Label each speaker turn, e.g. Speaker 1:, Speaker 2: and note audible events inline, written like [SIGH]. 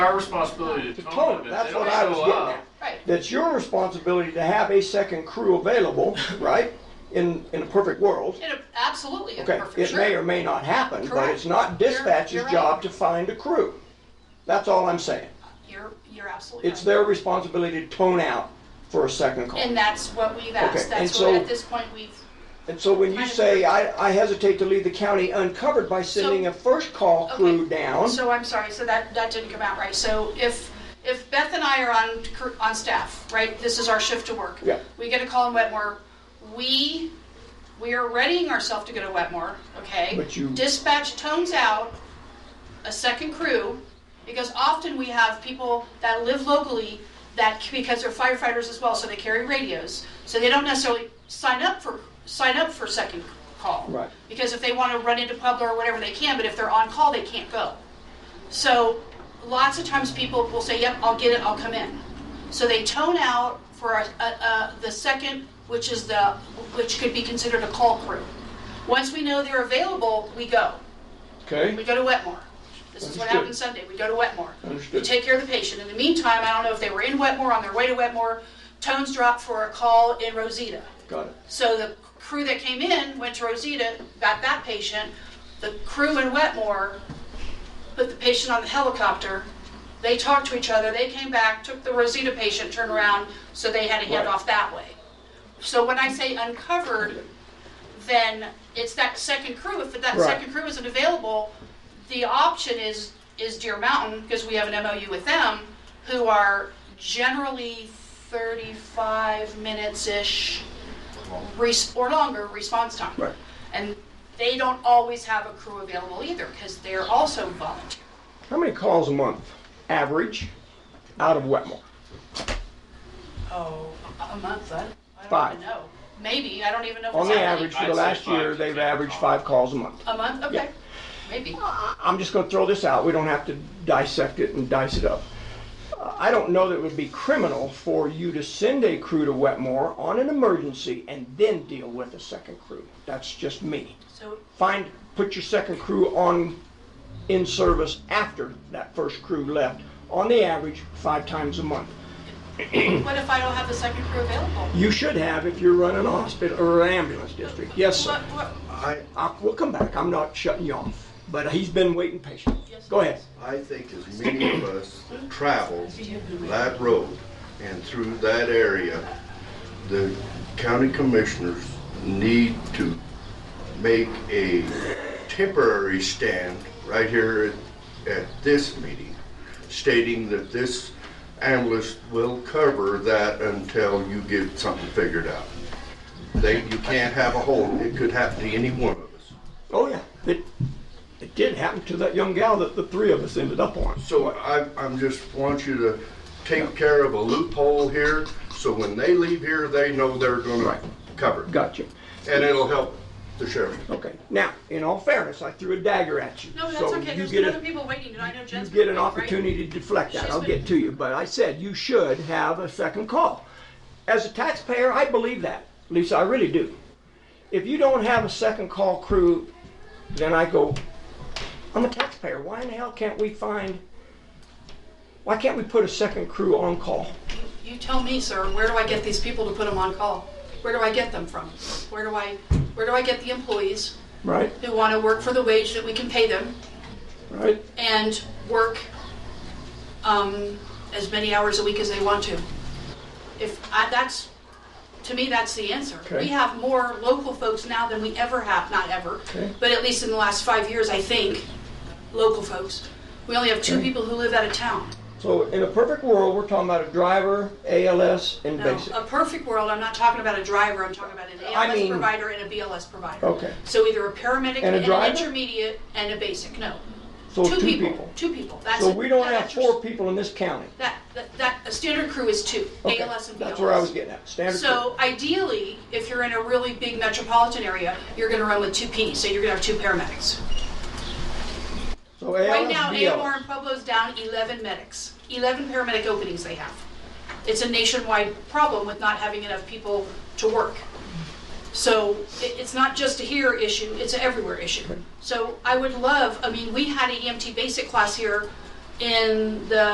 Speaker 1: Our responsibility to
Speaker 2: To
Speaker 1: tone
Speaker 2: tone
Speaker 1: them.
Speaker 2: it,
Speaker 1: If
Speaker 2: that's
Speaker 1: they
Speaker 2: what
Speaker 1: don't
Speaker 2: I was
Speaker 1: show
Speaker 2: getting
Speaker 1: up,
Speaker 2: at.
Speaker 3: Right.
Speaker 2: That's your responsibility to have a second crew
Speaker 3: [LAUGHS]
Speaker 2: available, right? In, in a perfect world.
Speaker 3: In a, absolutely, in a
Speaker 2: Okay,
Speaker 3: perfect
Speaker 2: it may
Speaker 3: sure.
Speaker 2: or may not happen, but
Speaker 3: Correct.
Speaker 2: it's not
Speaker 3: You're-
Speaker 2: dispatch's
Speaker 3: you're right.
Speaker 2: job to find a crew. That's all I'm saying.
Speaker 3: You're, you're absolutely
Speaker 2: It's
Speaker 3: right.
Speaker 2: their responsibility to tone out for a second call.
Speaker 3: And that's what we've
Speaker 2: Okay,
Speaker 3: asked.
Speaker 2: and
Speaker 3: That's
Speaker 2: so-
Speaker 3: what, at this point, we've,
Speaker 2: And so when you
Speaker 3: Kind of
Speaker 2: say,
Speaker 3: weird.
Speaker 2: I, I hesitate to leave the county uncovered by sending a first call crew
Speaker 3: Okay.
Speaker 2: down.
Speaker 3: so I'm sorry, so that, that didn't come out right. So if, if Beth and I are on, cr- on staff, right, this is our shift to work.
Speaker 2: Yeah.
Speaker 3: We get a call in Wetmore, we, we are readying ourselves to go to Wetmore, okay?
Speaker 2: But you-
Speaker 3: Dispatch tones out a second crew, because often we have people that live locally that, because they're firefighters as well, so they carry radios, so they don't necessarily sign up for, sign up for second call.
Speaker 2: Right.
Speaker 3: Because if they want to run into Pueblo or whatever, they can, but if they're on call, they can't go. So lots of times people will say, yep, I'll get it, I'll come in. So they tone out for a, a, a, the second, which is the, which could be considered a call crew. Once we know they're available, we go. We
Speaker 2: Okay,
Speaker 3: go to Wetmore. This is what
Speaker 2: Understood.
Speaker 3: happened Sunday. We go to Wetmore.
Speaker 2: Understood.
Speaker 3: We take care of the patient. In the meantime, I don't know if they were in Wetmore, on their way to Wetmore, tones dropped for a call in Rosita.
Speaker 2: got it.
Speaker 3: So the crew that came in went to Rosita, got that patient. The crew in Wetmore put the patient on the helicopter. They talked to each other. They came back, took the Rosita patient, turned around, so they had to hand
Speaker 2: Right.
Speaker 3: off that way. So when I say uncovered, then it's that second crew. If that
Speaker 2: Right.
Speaker 3: second crew isn't available, the option is is Deer Mountain because we have an MOU with them, who are generally 35 minutes ish res- or longer response time.
Speaker 2: Right.
Speaker 3: And they don't always have a crew available either because they're also volunteer.
Speaker 2: How many calls a month, average, out of Wetmore?
Speaker 3: Oh, a month, I, I don't
Speaker 2: Five.
Speaker 3: even know. Maybe, I don't even know if
Speaker 2: On
Speaker 3: it's
Speaker 2: the
Speaker 3: that many.
Speaker 2: average, for the
Speaker 1: I'd say
Speaker 2: last
Speaker 1: five
Speaker 2: year,
Speaker 1: to
Speaker 2: they've
Speaker 1: ten
Speaker 2: averaged
Speaker 1: calls.
Speaker 2: five calls a month.
Speaker 3: A month? Okay. Maybe.
Speaker 2: I- I'm just gonna throw this out, we don't have to dissect it and dice it up. Uh, I don't know that it would be criminal for you to send a crew to Wetmore on an emergency and then deal with a second crew. That's just me.
Speaker 3: So
Speaker 2: Find, put your second crew on, in service after that first crew left, on the average, five times a month.
Speaker 3: what if I don't have the second crew available?
Speaker 2: You should have if you're running a hospital or an ambulance district. Yes,
Speaker 3: What,
Speaker 2: sir.
Speaker 3: what,
Speaker 4: I,
Speaker 2: I, we'll come back. I'm not shutting you off, but he's been waiting patiently.
Speaker 3: Yes,
Speaker 2: Go
Speaker 3: he
Speaker 2: ahead.
Speaker 4: I think as many of us that travel that road and through that area, the county commissioners need to make a temporary stand right here at, at this meeting stating that this ambulance will cover that until you get something figured out. They, you can't have a hold, it could happen to any one of us.
Speaker 2: Oh yeah, it it did happen to that young gal that the three of us ended up on.
Speaker 4: So I, I'm just want you to take care of a loophole here, so when they leave here, they know they're gonna
Speaker 2: Right.
Speaker 4: cover. it.
Speaker 2: Gotcha.
Speaker 4: And it'll help the sheriff.
Speaker 2: Okay. Now, in all fairness, I threw a dagger at you.
Speaker 3: no, that's
Speaker 2: so
Speaker 3: okay.
Speaker 2: You
Speaker 3: There's
Speaker 2: get
Speaker 3: been
Speaker 2: a,
Speaker 3: other people waiting, and I know
Speaker 2: you
Speaker 3: Jen's
Speaker 2: get
Speaker 3: been
Speaker 2: an
Speaker 3: waiting, right?
Speaker 2: opportunity to deflect that.
Speaker 3: She's
Speaker 2: I'll
Speaker 3: been-
Speaker 2: get to you, but I said you should have a second call. As a taxpayer, I believe that, Lisa. I really do. If you don't have a second call crew, then I go. I'm a taxpayer. Why in the hell can't we find? Why can't we put a second crew on call?
Speaker 3: You tell me, sir, where do I get these people to put them on call? Where do I get them from? Where do I, where do I get the employees
Speaker 2: Right.
Speaker 3: who want to work for the wage that we can pay them
Speaker 2: Right.
Speaker 3: and work um, as many hours a week as they want to? If I, that's, to me, that's the answer.
Speaker 2: Okay.
Speaker 3: We have more local folks now than we ever have, not ever,
Speaker 2: Okay.
Speaker 3: but at least in the last five years, I think, local folks. We only have two
Speaker 2: Okay.
Speaker 3: people who live out of town.
Speaker 2: So in a perfect world, we're talking about a driver, ALS, and
Speaker 3: No, um,
Speaker 2: basic.
Speaker 3: a perfect world, I'm not talking about a driver, I'm talking about an
Speaker 2: I
Speaker 3: ALS
Speaker 2: mean-
Speaker 3: provider and a BLS provider.
Speaker 2: Okay.
Speaker 3: So either a paramedic
Speaker 2: And
Speaker 3: and
Speaker 2: a driver?
Speaker 3: an intermediate and a basic, no.
Speaker 2: So two people.
Speaker 3: Two people, that's.
Speaker 2: So
Speaker 3: it.
Speaker 2: we don't
Speaker 3: That-
Speaker 2: have
Speaker 3: that's
Speaker 2: four
Speaker 3: your-
Speaker 2: people in this county.
Speaker 3: That, that, that, a standard crew is two,
Speaker 2: Okay,
Speaker 3: ALS and BLS.
Speaker 2: That's where I was getting at, standard crew.
Speaker 3: So ideally, if you're in a really big metropolitan area, you're gonna run with two Ps, so you're gonna have two paramedics.
Speaker 2: So
Speaker 3: Right
Speaker 2: ALS,
Speaker 3: now, AMR
Speaker 2: BLS.
Speaker 3: and Pueblo's down 11 medics, 11 paramedic openings they have. It's a nationwide problem with not having enough people to work. So it- it's not just a here issue, it's an everywhere issue. E So I would love, I mean, we had an EMT basic class here in the